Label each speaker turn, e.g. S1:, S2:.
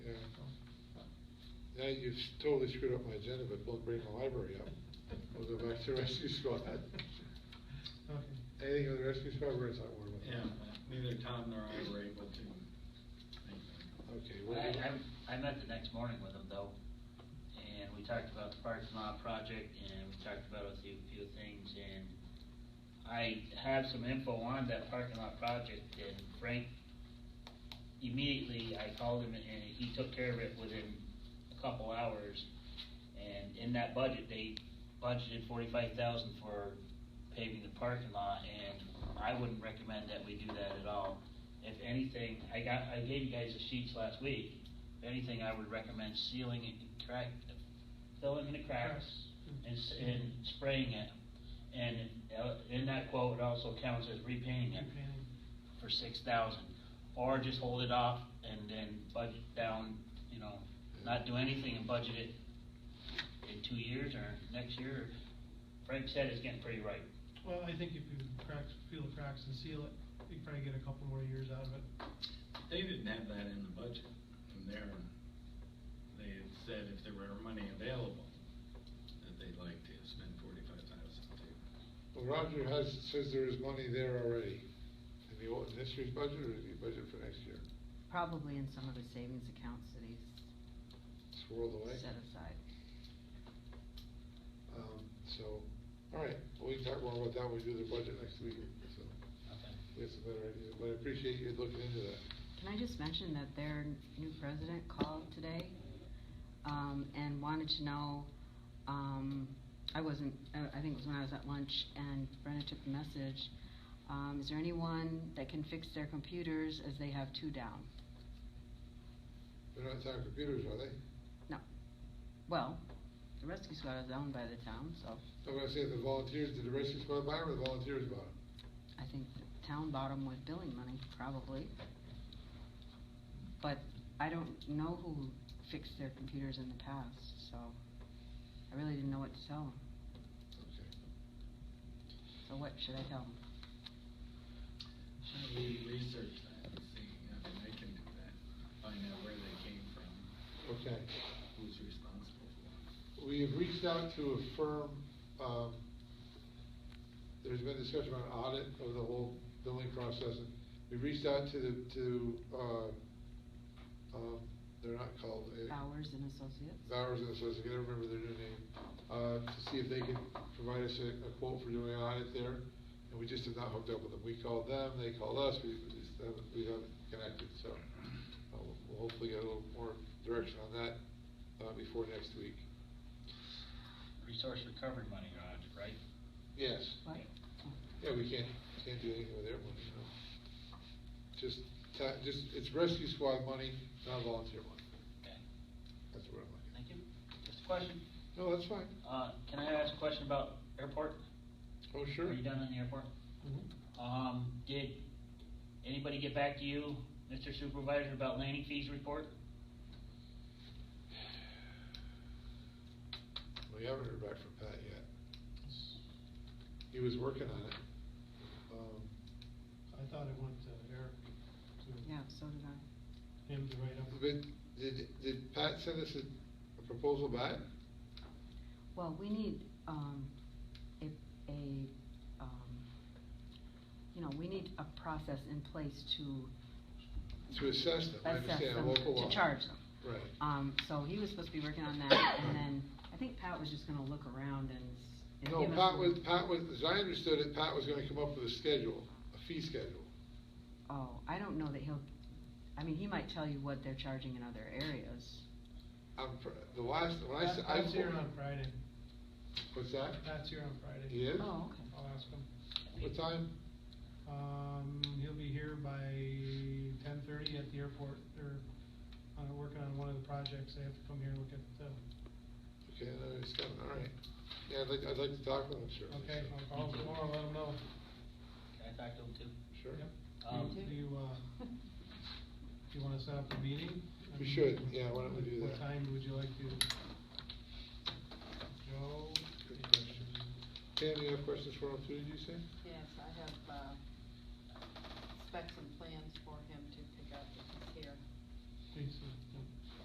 S1: Now you've totally screwed up my agenda, but we'll bring the library up. We'll go back to rescue squad. Anything on the rescue squad, where is that word?
S2: Yeah, neither Tom nor I were able to make that.
S1: Okay. what
S3: I,
S1: do you-
S3: I, I met the next morning with him though, and we talked about the parking lot project, and we talked about a few, few things, and I have some info on that parking lot project, and Frank, immediately I called him, and he took care of it within a couple hours, and in that budget, they budgeted forty-five thousand for paving the parking lot, and I wouldn't recommend that we do that at all. If anything, I got, I gave you guys the sheets last week, if anything, I would recommend sealing it and crack, filling in the cracks and, s- and spraying it. And uh, in that quote, it also counts as repainting it for six thousand. Or just hold it off and then budget down, you know, not do anything and budget it in two years or next year. Frank said it's getting pretty right.
S4: Well, I think if you cracks, feel the cracks and seal it, you can probably get a couple more years out of it.
S2: They didn't have that in the budget from there. They had said if there were money available, that they'd like to spend forty-five thousand to.
S1: Well, Roger has, says there is money there already. In the, old- in this year's budget or in the budget for next year?
S5: Probably in some of the savings accounts that he's
S1: It's whirled away.
S5: set aside.
S1: Um, So, all right, well, we can talk more about that when we do the budget next week, so we have some better ideas. But I appreciate you looking into that.
S5: Can I just mention that their new president called today um, and wanted to know, um, I wasn't, uh, I think it was when I was at lunch, and Brenda took the message, um, is there anyone that can fix their computers as they have two down?
S1: They're not on computers, are they?
S5: No. Well, the rescue squad is owned by the town, so
S1: I'm gonna say the volunteers, did the rescue squad buy them or the volunteers bought them?
S5: I think the town bought them with billing money, probably. But I don't know who fixed their computers in the past, so I really didn't know what to tell them.
S1: Okay.
S5: So what should I tell them?
S2: Should we research that and see, I mean, they can do that, find out where they came from,
S1: Okay.
S2: who's responsible for
S1: We have reached out to a firm, um, there's been discussion about audit of the whole billing process. We reached out to the, to, uh, um, they're not called. uh,
S5: Bowers and Associates?
S1: Bowers and Associates, I can't remember their new name, uh, to see if they can provide us a a quote for doing an audit there. And we just have not hooked up with them. We called them, they called us, we we just haven't, we haven't connected, so. uh, We'll we'll hopefully get a little more direction on that uh, before next week.
S3: Resource recovery money, Roger, right?
S1: Yes.
S5: What?
S1: Yeah, we can't, can't do anything with their money, no. Just, ta- just, it's rescue squad money, not volunteer money.
S3: Okay,
S1: That's what I'm looking at.
S3: thank you. Just a question,
S1: No, that's fine.
S3: uh, can I ask a question about airport?
S1: Oh, sure.
S3: Are you done on the airport?
S1: Mm-hmm.
S3: Um, did anybody get back to you, Mr. Supervisor, about landing fees report?
S1: We haven't heard back from Pat yet. He was working on it. Um,
S4: I thought it went to Eric,
S5: Yeah, so did I.
S4: to him to write up.
S1: But did, did Pat send us a a proposal back?
S5: Well, we need, um, a, a, um, you know, we need a process in place to
S1: To assess them, I
S5: assess
S1: understand,
S5: them,
S1: local law.
S5: to charge them.
S1: Right.
S5: Um, so he was supposed to be working on that, and then I think Pat was just gonna look around and. s- and
S1: No,
S5: give us
S1: Pat
S5: some-
S1: was, Pat was, as I understood it, Pat was gonna come up with a schedule, a fee schedule.
S5: Oh, I don't know that he'll, I mean, he might tell you what they're charging in other areas.
S1: I'm, pr- the last, when I. s- I-
S4: Pat's here on Friday.
S1: What's that?
S4: Pat's here on Friday.
S1: He is?
S5: Oh, okay.
S4: I'll ask him.
S1: What time?
S4: Um, he'll be here by ten thirty at the airport. They're, uh, working on one of the projects. They have to come here and look at, uh,
S1: Okay, I know he's coming, all right. Yeah, I'd like, I'd like to talk with him, sure.
S4: okay, I'll call him tomorrow, let him know.
S3: Can I talk to them too?
S1: Sure.
S4: Yep.
S3: Um,
S4: Do you, uh, do you wanna set up a meeting?
S1: We should, yeah, why don't we do
S4: What
S1: that?
S4: time would you like to? Joe?
S1: Good question. Pam, you have questions for him too, did you say?
S6: Yes, I have uh,